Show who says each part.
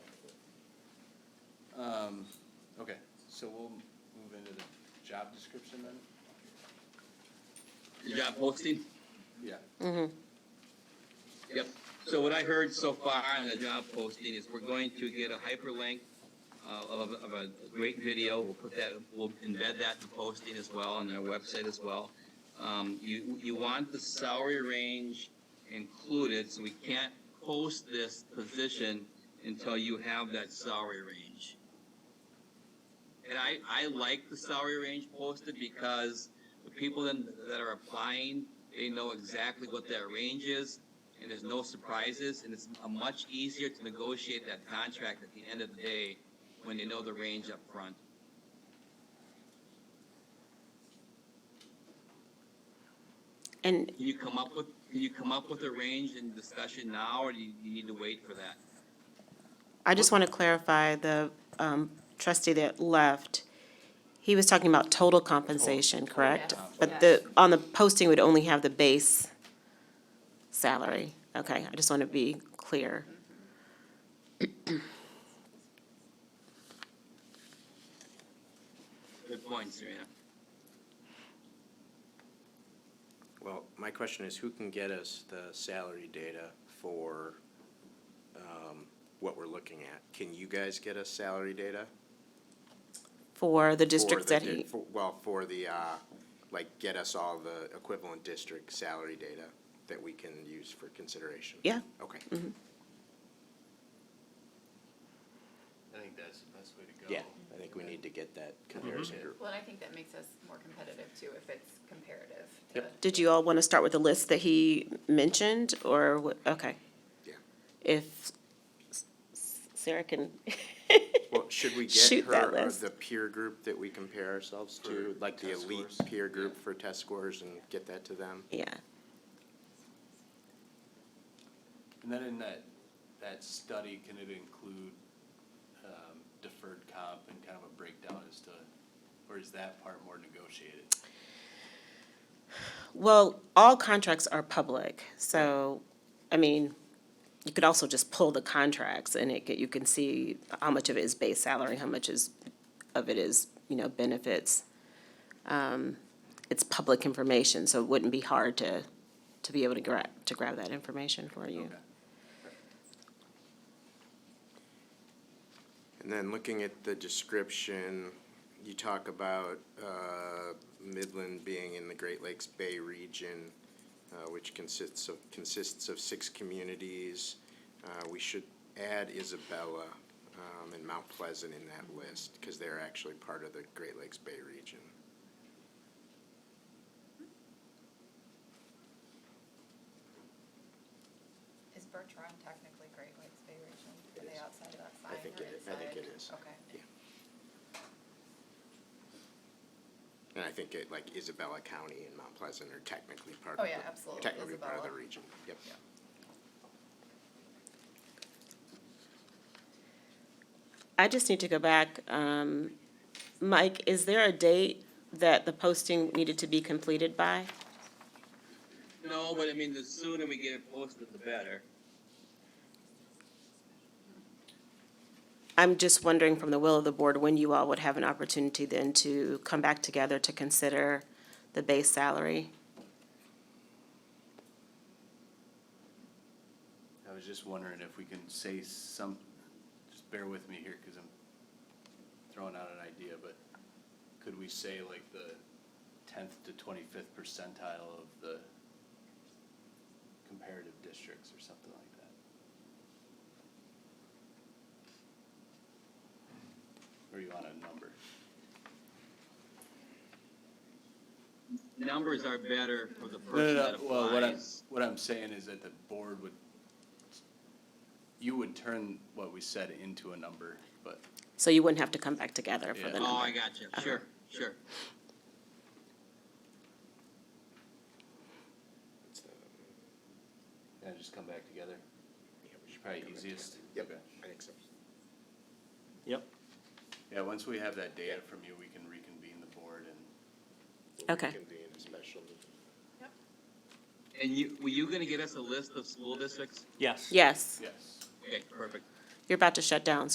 Speaker 1: So we'll move into the job description then?
Speaker 2: The job posting?
Speaker 1: Yeah.
Speaker 2: Yep. So what I heard so far on the job posting is we're going to get a hyperlink uh, of, of a great video. We'll put that, we'll embed that in the posting as well, on our website as well. Um, you, you want the salary range included, so we can't post this position until you have that salary range. And I, I like the salary range posted because the people then- that are applying, they know exactly what that range is and there's no surprises, and it's a much easier to negotiate that contract at the end of the day when they know the range up front.
Speaker 3: And
Speaker 2: Can you come up with, can you come up with a range in discussion now, or do you, you need to wait for that?
Speaker 3: I just want to clarify, the um, trustee that left, he was talking about total compensation, correct?
Speaker 4: Yes,
Speaker 3: But the, on the posting would only have the base salary. Okay, I just want to be clear.
Speaker 2: Good point, Serena.
Speaker 1: Well, my question is, who can get us the salary data for um, what we're looking at? Can you guys get us salary data?
Speaker 3: For the
Speaker 1: for
Speaker 3: districts
Speaker 1: the
Speaker 3: that
Speaker 1: di-
Speaker 3: he,
Speaker 1: for- Well, for the, uh, like, get us all the equivalent district salary data that we can use for consideration?
Speaker 3: yeah,
Speaker 1: Okay,
Speaker 5: I think that's the best way to go. Mm-hmm.
Speaker 1: yeah, I think we need to get that comparison group.
Speaker 4: Well, and I think that makes us more competitive too, if it's comparative. to-
Speaker 1: Yep.
Speaker 3: did you all want to start with the list that he mentioned, or, what- okay?
Speaker 1: Yeah.
Speaker 3: If S- S- Sarah can,
Speaker 1: Well, should we get
Speaker 3: Shoot that
Speaker 1: her uh,
Speaker 3: list.
Speaker 1: the peer group that we compare ourselves to,
Speaker 5: For
Speaker 1: like the
Speaker 5: test
Speaker 1: elite
Speaker 5: scores?
Speaker 1: peer group for test scores and get that to them?
Speaker 3: yeah.
Speaker 5: And then in that, that study, can it include um, deferred comp and kind of a breakdown as to, or is that part more negotiated?
Speaker 3: Well, all contracts are public, so, I mean, you could also just pull the contracts and it, could- you can see how much of it is base salary, how much is, of it is, you know, benefits. Um, It's public information, so it wouldn't be hard to, to be able to grab, to grab that information for you.
Speaker 5: Okay.
Speaker 1: And then looking at the description, you talk about uh, Midland being in the Great Lakes Bay region, uh, which consists of, consists of six communities. Uh, We should add Isabella um, and Mount Pleasant in that list, because they're actually part of the Great Lakes Bay region.
Speaker 4: Is Bertrand technically Great Lakes Bay region? Are
Speaker 1: It
Speaker 4: they
Speaker 1: is.
Speaker 4: outside of that
Speaker 1: I
Speaker 4: sign
Speaker 1: think
Speaker 4: or
Speaker 1: it is. I think
Speaker 4: inside?
Speaker 1: it is.
Speaker 4: Okay.
Speaker 1: And I think it, like Isabella County and Mount Pleasant are technically part
Speaker 4: Oh,
Speaker 1: of the.
Speaker 4: yeah, absolutely,
Speaker 1: Technically part of the
Speaker 4: Isabella.
Speaker 1: region, yep.
Speaker 3: I just need to go back, um, Mike, is there a date that the posting needed to be completed by?
Speaker 2: No, but I mean, the sooner we get it posted, the better.
Speaker 3: I'm just wondering from the will of the board, when you all would have an opportunity then to come back together to consider the base salary?
Speaker 5: I was just wondering if we can say some, just bear with me here, because I'm throwing out an idea, but could we say like the tenth to twenty-fifth percentile of the comparative districts or something like that? Or you want a number?
Speaker 2: Numbers are better for the
Speaker 5: No,
Speaker 2: person
Speaker 5: no,
Speaker 2: that
Speaker 5: no, well, what I'm,
Speaker 2: applies.
Speaker 5: what I'm saying is that the board would, you would turn what we said into a number, but.
Speaker 3: So you wouldn't have to come back together for
Speaker 5: Yeah.
Speaker 3: the
Speaker 2: Oh, I
Speaker 3: number.
Speaker 2: got you. Sure, sure.
Speaker 5: And just come back together? It's probably easiest.
Speaker 1: Yep,
Speaker 5: Okay.
Speaker 1: I think so.
Speaker 5: Yep. Yeah, once we have that data from you, we can reconvene the board and.
Speaker 1: We'll
Speaker 3: Okay.
Speaker 1: reconvene a special meeting.
Speaker 2: And you, were you gonna get us a list of school districts?
Speaker 6: Yes.
Speaker 3: Yes,
Speaker 5: Yes.
Speaker 2: Okay, perfect.
Speaker 3: you're about to shut down,